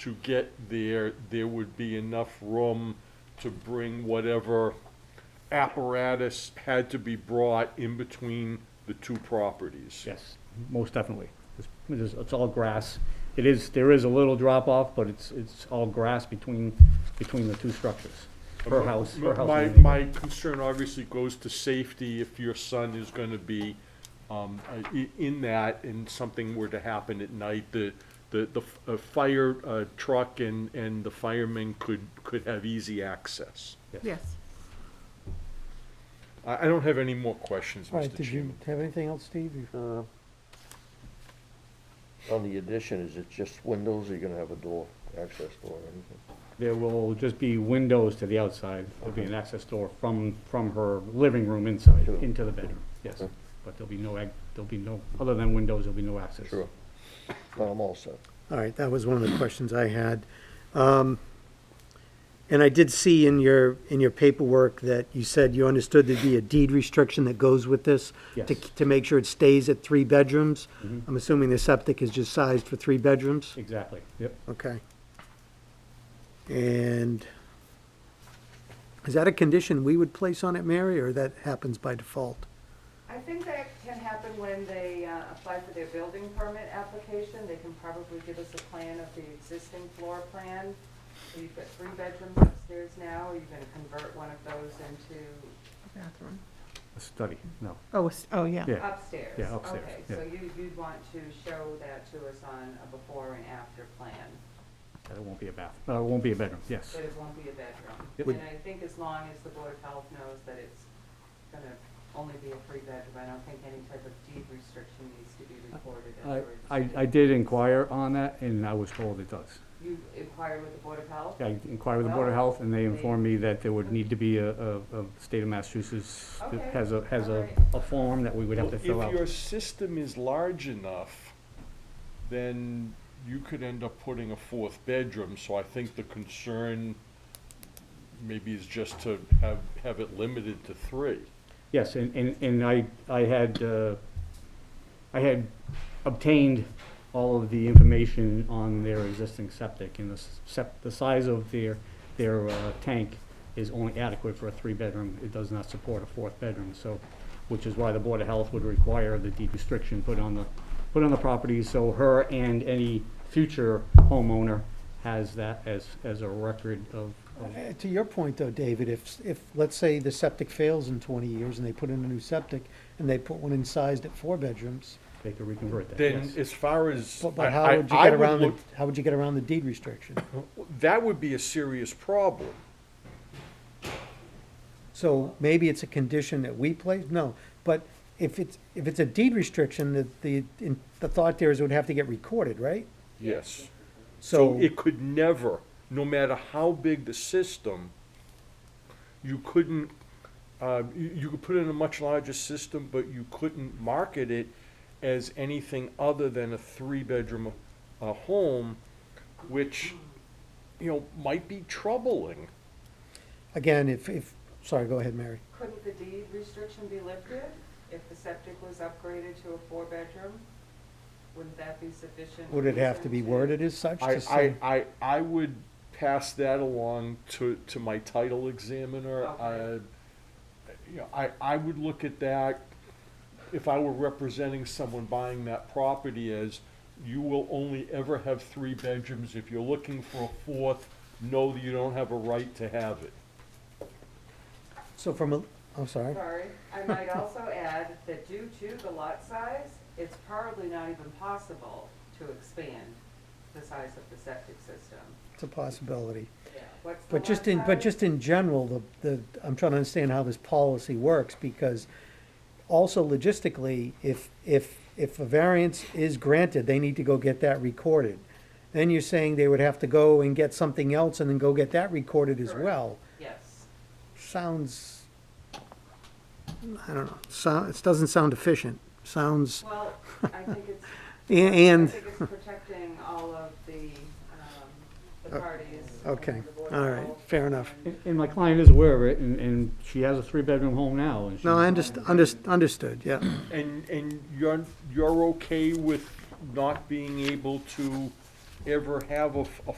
to get there, there would be enough room to bring whatever apparatus had to be brought in between the two properties. Yes, most definitely. It's, it's- it's all grass. It is, there is a little drop off, but it's, it's all grass between, between the two structures. Per house, per house. My, and- my concern obviously goes to safety if your son is gonna be, um, i- in that and something were to happen at night, the, the, the f- uh, fire uh, truck and, and the firemen could, could have easy access. Yes. I, I don't have any more questions, All right, Mr. did you Chairman. have anything else, Steve? You- Uh, On the addition, is it just windows, or you gonna have a door, access door or anything? There will just be windows to the outside. There'll be an access door from, from her living room inside, Sure. into the bedroom, yes. Okay. But there'll be no, ag- there'll be no, other than windows, there'll be no access. Sure. No, I'm all set. All right, that was one of the questions I had. Um, And I did see in your, in your paperwork that you said you understood there'd be a deed restriction that goes with this? To, Yes. to make sure it stays at three bedrooms? Mm-hmm. I'm assuming the septic is just sized for three bedrooms? Exactly, yep. Okay. And is that a condition we would place on it, Mary, or that happens by default? I think that can happen when they uh, apply for their building permit application. They can probably give us a plan of the existing floor plan. So you've got three bedrooms upstairs now. Are you going to convert one of those into Bathroom. A study, no, Oh, it's- oh, yeah. yeah. upstairs? Yeah, upstairs, Okay, yeah. so you, you'd want to show that to us on a before and after plan, It won't be a bath, uh, it won't be a bedroom, yes. but it won't be a bedroom. Yep. And I think as long as the Board of Health knows that it's going to only be a three bedroom, I don't think any type of deed restriction needs to be recorded. as I, a I, restriction. I did inquire on that, and I was told it does. You inquired with the Board of Health? I inquired with the Board of Well, Health, and they informed me that there would need to be a, a, a state of Massachusetts that Okay, has a, has a, alright. a form that we would have to Well, fill If your out. system is large enough, then you could end up putting a fourth bedroom, so I think the concern maybe is just to have, have it limited to three. Yes, and, and, and I, I had, uh, I had obtained all of the information on their existing septic, and the s- sep, the size of their, their, uh, tank is only adequate for a three-bedroom, it does not support a fourth bedroom, so, which is why the Board of Health would require the deed restriction put on the, put on the property, so her and any future homeowner has that as, as a record of, of Uh, To your point, though, David, if, if, let's say the septic fails in 20 years and they put in a new septic and they put one in sized at four bedrooms, they could reconvert that, Then yes. as far as. but- but I- how I- would you I get around, the look- how would you get around the deed restriction? That would be a serious problem. So maybe it's a condition that we place, no, but if it's, if it's a deed restriction, that the, in- the thought there is it would have to get recorded, right? Yes. So So, it could never, no matter how big the system, you couldn't, uh, you, you could put in a much larger system, but you couldn't market it as anything other than a three-bedroom, uh, home, which, you know, might be troubling. again, if, if, sorry, go ahead, Mary. Couldn't the deed restriction be lifted if the septic was upgraded to a four-bedroom? Wouldn't that be sufficient? Would it have to reason be worded as such to I, say? I, I, I would pass that along to, to my title examiner. Uh, Okay. You know, I, I would look at that, if I were representing someone buying that property as, you will only ever have three bedrooms. If you're looking for a fourth, know that you don't have a right to have it. So from a, I'm sorry. Sorry, I might also add that due to the lot size, it's probably not even possible to expand the size of the septic system. It's a possibility. What's the But just lot in, but size? just in general, the, the, I'm trying to understand how this policy works, because also logistically, if, if, if a variance is granted, they need to go get that recorded. Then you're saying they would have to go and get something else and then go get that recorded as Correct. well. Yes. Sounds, I don't know, sound, it doesn't sound efficient, sounds, Well, I think it's a- I and, think it's protecting all of the, um, the parties. Uh, okay, and the board all right, involved. fair enough. And- And my client is aware of it, and, and she has a three-bedroom home now, and she. No, I underst, underst, understood, yeah. And, and you're, you're okay with not being able to ever have a, f- a